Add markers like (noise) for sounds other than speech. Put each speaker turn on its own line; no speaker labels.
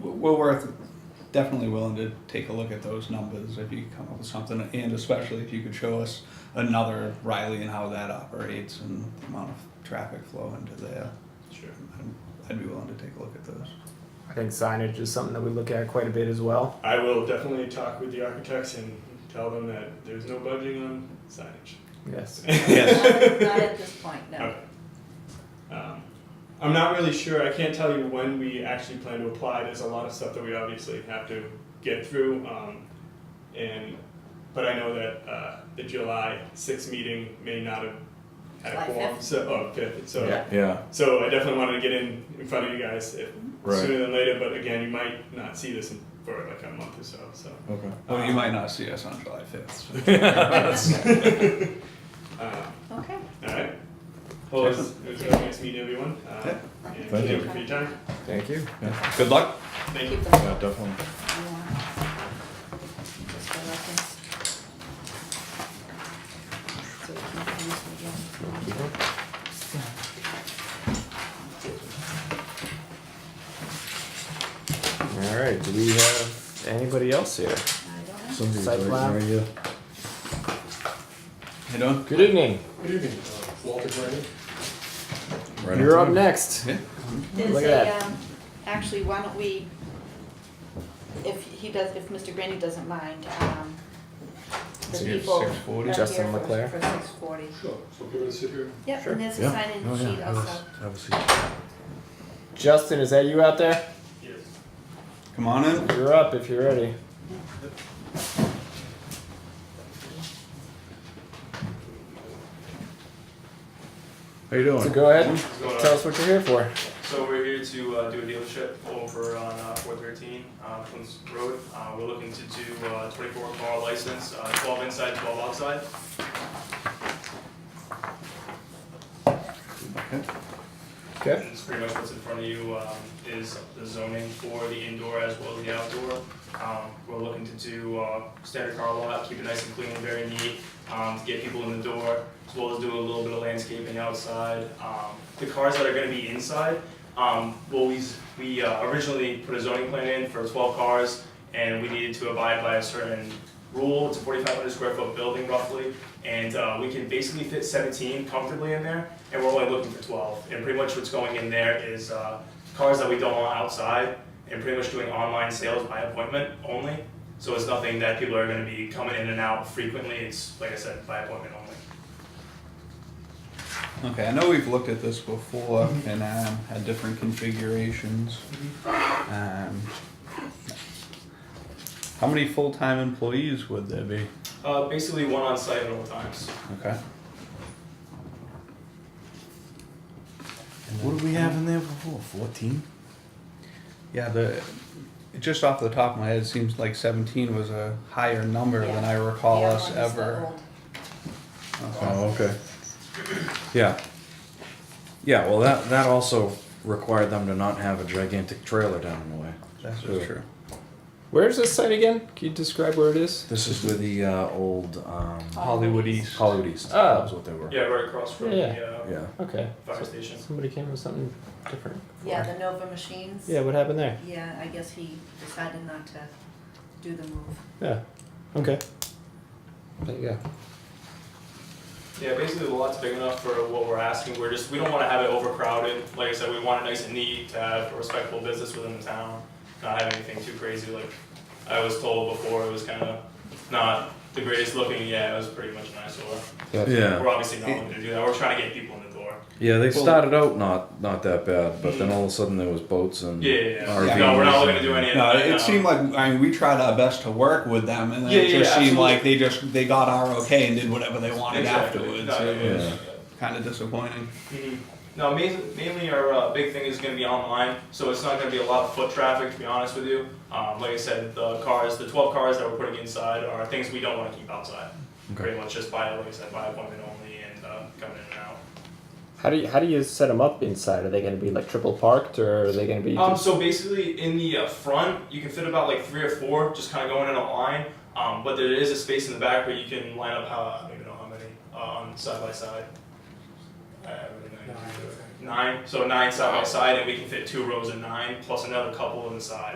well worth definitely willing to take a look at those numbers if you come up with something, and especially if you could show us another Riley and how that operates and the amount of traffic flow into there.
Sure.
I'm- I'd be willing to take a look at those.
I think signage is something that we look at quite a bit as well.
I will definitely talk with the architects and tell them that there's no budging on signage.
Yes.
Yes.
Not at this point, no.
Um, I'm not really sure. I can't tell you when we actually plan to apply. There's a lot of stuff that we obviously have to get through. Um, and but I know that uh, the July 6th meeting may not have had
July
a quorum,
fifth.
so oh, fifth. So
Yeah.
Yeah,
so I definitely wanted to get in in front of you guys if,
Right.
sooner than later. But again, you might not see this in, for like a month or so. So. (laughs)
okay.
Well, you might not see us on July fifth.
Uh,
Okay.
all right. Well, it was, it was really nice meeting everyone. Uh, and
Thank you.
for your time.
Thank you.
Yeah. Good luck.
Thank you.
Keep
Yeah,
them.
definitely.
Just for reference. So we can use them again.
All right. Do we have anybody else here?
I don't know.
Somebody's
Site plan.
writing right here.
You know?
Good evening.
Good evening, Uh, Walter Brennan.
Right
You're up
on time.
next.
Yeah.
There's
Look at
a,
that.
um, actually, why don't we, if he does, if Mr. Grandy doesn't mind, um, the
So you have
people.
640?
are
Justin
here for-
Leclerc.
For six forty.
Sure, so give it a sit here.
Yep,
Sure.
and there's a
Yeah.
sign in
Oh, yeah,
sheet
I was-
also.
I was thinking-
Justin, is that you out there?
Yes.
Come on in.
You're up if you're ready.
How you doing?
So go ahead and
What's going on?
tell us what you're here for.
So we're here to uh, do a dealership over on uh, 413 uh, Queens Road. Uh, We're looking to do uh 24 car license, uh, 12 inside, 12 outside.
Okay.
And it's pretty much what's in front of you um, is the zoning for the indoor as well as the outdoor. Um, We're looking to do uh, standard car lot, keep it nice and clean, very neat, um, to get people in the door, as well as do a little bit of landscaping outside. Um, The cars that are gonna be inside, um, well, we, s- we uh, originally put a zoning plan in for twelve cars, and we needed to abide by a certain rule, it's a forty-five hundred square foot building roughly, and, uh, we can basically fit seventeen comfortably in there, and we're only looking for twelve, and pretty much what's going in there is, uh, cars that we don't want outside, and pretty much doing online sales by appointment only, so it's nothing that people are gonna be coming in and out frequently, it's, like I said, by appointment only.
Okay, I know we've looked at this before and um, had different configurations. Um, how many full-time employees would there be?
Uh, basically one on site at all times.
Okay.
What do we have in there before? Fourteen?
Yeah, the just off the top of my head, it seems like 17 was a higher number than I recall
The other
us
one is the
ever.
old.
Okay.
Oh, okay.
Yeah. Yeah, well, that, that also required them to not have a gigantic trailer down in the way.
That's just true.
Where's this site again? Can you describe where it is?
This is where the uh, old um,
Hollywood East.
Hollywood East.
Oh.
That was what they were.
Yeah, right across from
Yeah.
the uh,
Yeah.
Okay.
fire station.
Somebody came with something different.
Yeah, the Nova machines.
Yeah, what happened there?
Yeah, I guess he decided not to do the move.
Yeah. Okay. There you go.
Yeah, basically the lot's big enough for what we're asking. We're just, we don't wanna have it overcrowded. Like I said, we want it nice and neat, to have a respectful business within the town, not have anything too crazy like I was told before, it was kinda not the greatest looking, yeah, it was pretty much an eyesore. We're
Yeah.
obviously not looking to do that. We're trying to get people in the door.
Yeah, they
Well-
started out not not that bad, but then all of a sudden there was boats and
Yeah, yeah, yeah.
RVs.
No, we're not looking to do any of
No,
that.
it
no.
seemed like I mean we tried our best to work with them, and then
um, Yeah,
it
yeah,
just
yeah,
seemed like they just they got our okay and did whatever they wanted
Exactly.
afterwards.
No,
it
yeah,
was
yeah.
kind of disappointing.
Mhm. No, mainly, mainly our uh, big thing is going to be online, so it's not going to be a lot of foot traffic, to be honest with you. Um, like I said, the cars, the 12 cars that we're putting inside are things we don't want to keep outside.
Okay.
Pretty much just by, like I said, by appointment only and uh, coming in and out.
How do you how do you set them up inside? Are they going to be like triple parked, or are they going to be?
Um, so basically, in the uh, front, you can fit about like three or four, just kind of going in a line. Um, but there is a space in the back where you can line up how I don't even know how many uh, on side by side. Uh, I have it in there. Nine. So nine side by side, and we can fit two rows of nine plus another couple on the side.